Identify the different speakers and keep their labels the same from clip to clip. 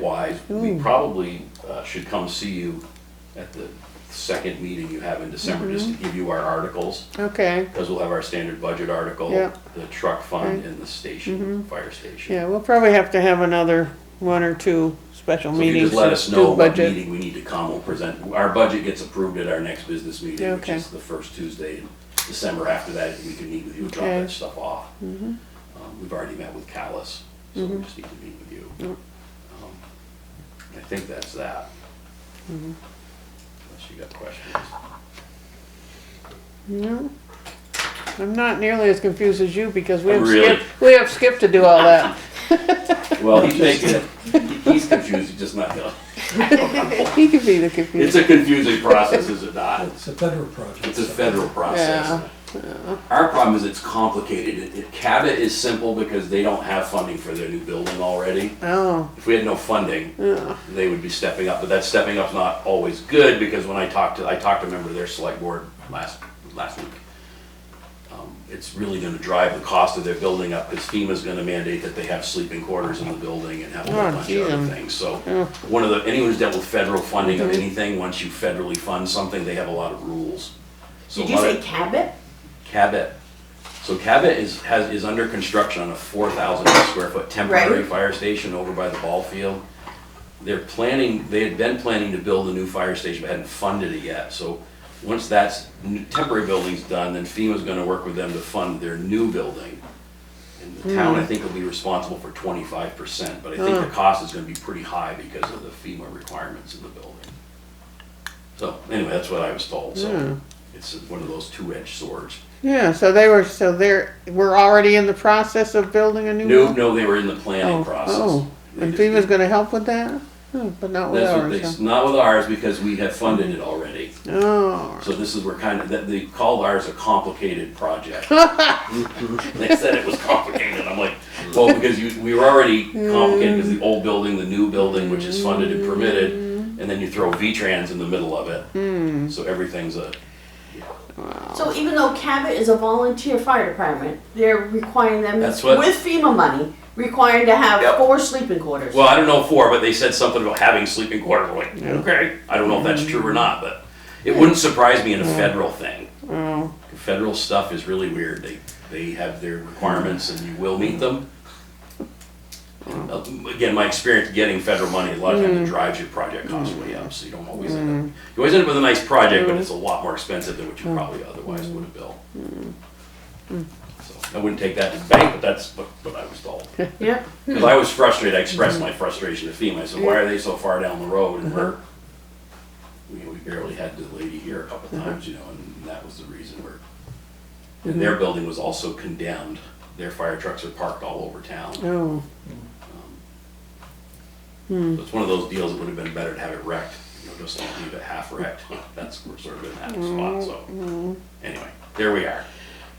Speaker 1: wise, we probably uh, should come see you at the second meeting you have in December, just to give you our articles,
Speaker 2: Okay,
Speaker 1: because we'll have our standard budget article,
Speaker 2: Yeah.
Speaker 1: the truck fund, and the station, fire station.
Speaker 2: yeah, we'll probably have to have another one or two special
Speaker 1: So if you
Speaker 2: meetings.
Speaker 1: just let us
Speaker 2: to
Speaker 1: know
Speaker 2: do
Speaker 1: what
Speaker 2: budget.
Speaker 1: meeting we need to come, we'll present, our budget gets approved at our next business meeting, which
Speaker 2: Okay.
Speaker 1: is the first Tuesday in December. After that, we can meet with you, drop
Speaker 2: Okay. Mm-hmm.
Speaker 1: that stuff off. Um, We've already met with Callis, so we just need to meet with you. Um, I think that's that.
Speaker 2: Mm-hmm.
Speaker 1: Unless you got questions.
Speaker 2: No. I'm not nearly as confused as you because we have
Speaker 1: Really?
Speaker 2: Skip, we have Skip to do all that.
Speaker 1: Well, he's making it, he- he's confused, he's just not gonna,
Speaker 2: He could be the
Speaker 1: it's
Speaker 2: confused.
Speaker 1: a confusing process, is it not?
Speaker 3: It's a federal project.
Speaker 1: It's a
Speaker 3: so-
Speaker 1: federal process.
Speaker 2: Yeah,
Speaker 1: Our problem is it's complicated. It- it- CABA is simple because they don't have funding for their new building already.
Speaker 2: Oh,
Speaker 1: If we had no funding, they would be stepping up, but that stepping up's not always good because when I talked to, I talked to a member of their select board last, last week. Um, It's really gonna drive the cost of their building up because FEMA's gonna mandate that they have sleeping quarters in the building and have a whole
Speaker 2: Oh,
Speaker 1: bunch of
Speaker 2: geez.
Speaker 1: other things. So one of the, anyone who's dealt with federal funding of anything, once you federally fund something, they have a lot of rules. So
Speaker 4: Did
Speaker 1: a
Speaker 4: you
Speaker 1: lot of-
Speaker 4: say Cabot?
Speaker 1: Cabot. So Cabot is, has, is under construction on a four thousand square foot temporary
Speaker 4: Right.
Speaker 1: fire station over by the ball field. They're planning, they had been planning to build a new fire station, but hadn't funded it yet, so once that's, new- temporary building's done, then FEMA's gonna work with them to fund their new building. And the town, I think, will be responsible for twenty-five percent, but I think the cost is gonna be pretty high because of the FEMA requirements in the building. So, anyway, that's what I was told, so it's one of those two-edged swords.
Speaker 2: yeah, so they were, so they're, we're already in the process of building a new
Speaker 1: No,
Speaker 2: one?
Speaker 1: no, they were in the
Speaker 2: Oh,
Speaker 1: planning process.
Speaker 2: oh,
Speaker 1: They
Speaker 2: and
Speaker 1: just-
Speaker 2: FEMA's gonna help with that? Hmm, But not with
Speaker 1: That's what they,
Speaker 2: ours, Mm-hmm. huh?
Speaker 1: not with ours, because we have funded it already.
Speaker 2: Oh,
Speaker 1: So this is, we're kind of, that, they called ours a complicated project. They said it was complicated, I'm like, well, because you, we were already complicated, because
Speaker 2: Mm.
Speaker 1: the old building, the new building, which is funded and permitted, and then you throw V-Trans in the middle of
Speaker 2: Mm.
Speaker 1: it. So everything's a,
Speaker 4: So even though Cabot is a volunteer fire department, they're requiring them
Speaker 1: That's what-
Speaker 4: with FEMA money, required to have
Speaker 1: Yep.
Speaker 4: four sleeping quarters.
Speaker 1: well, I don't know for, but they said something about having sleeping quarters, we're like, okay, I don't know if that's true or not, but it wouldn't surprise me in a federal thing.
Speaker 2: oh,
Speaker 1: federal stuff is really weird. They, they have their requirements and you will meet them. Uh, Again, my experience getting federal money, a lot of times it drives your project costs way up, so you don't always end up, you always end up with a nice project, but it's a lot more expensive than what you probably otherwise would have built. So I wouldn't take that to the bank, but that's what, what I was told.
Speaker 4: Yep.
Speaker 1: Because I was frustrated, I expressed my frustration to FEMA, I said, why are they so far down the road and we're, we, we barely had the lady here a couple times, you know, and that was the reason we're. And their building was also condemned, their fire trucks are parked all over town. So
Speaker 2: oh,
Speaker 1: It's one of those deals that would have been better to have it wrecked, you know, just don't leave it half wrecked, that's, we're sort of in that spot, so. Anyway, there we are,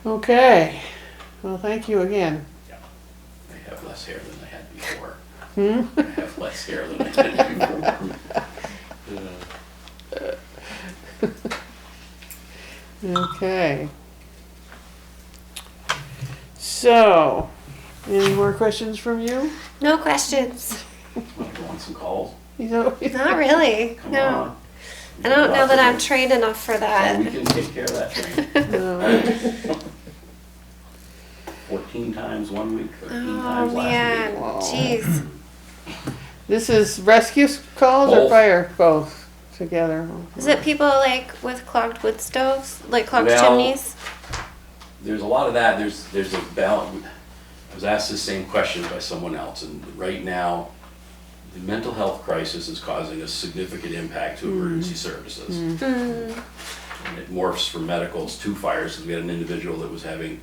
Speaker 2: okay. Well, thank you again.
Speaker 1: I have less hair than I had before. I have less hair than I had before.
Speaker 2: Okay. So, any more questions from you?
Speaker 5: No questions.
Speaker 1: Want to go on some calls?
Speaker 2: You know,
Speaker 5: Not really.
Speaker 1: Come on.
Speaker 5: No. I don't know that I'm trained enough for
Speaker 1: Well,
Speaker 5: that.
Speaker 1: we can take care of that train.
Speaker 2: no.
Speaker 1: Fourteen times one week, thirteen
Speaker 5: Oh
Speaker 1: times last
Speaker 5: man,
Speaker 1: week.
Speaker 5: jeez.
Speaker 2: This is rescue calls or
Speaker 1: Both.
Speaker 2: fire? Both together.
Speaker 5: Is it people like with clogged wood stoves, like clogged
Speaker 1: Well-
Speaker 5: chimneys?
Speaker 1: There's a lot of that, there's, there's a balance. I was asked the same question by someone else, and right now, the mental health crisis is causing a significant impact to emergency services. And It morphs from medicals to fires, because we had an individual that was having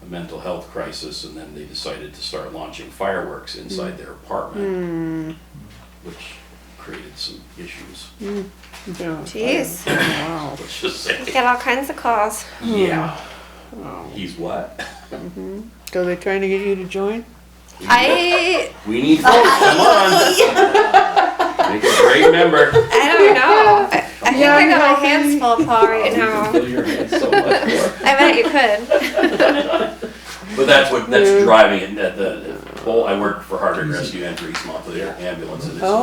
Speaker 1: a mental health crisis, and then they decided to start launching fireworks inside their apartment, which created some issues,
Speaker 2: Yeah.
Speaker 5: Jeez.
Speaker 2: Wow.
Speaker 1: let's just say.
Speaker 5: Get all kinds of calls.
Speaker 1: Yeah. He's what?
Speaker 2: So they're trying to get you to join?
Speaker 5: I
Speaker 1: We need folks, come on. Make a great member.
Speaker 5: I don't know. I, I think I
Speaker 2: Yeah,
Speaker 5: got
Speaker 2: no.
Speaker 5: my hands full, Paul, right
Speaker 1: You can
Speaker 5: now.
Speaker 1: fill your hands so much more.
Speaker 5: I bet you could.
Speaker 1: But that's what, that's driving it, that the, Well, I work for Hardwick Rescue and for East Montpelier Ambulance. and it's-
Speaker 2: Oh,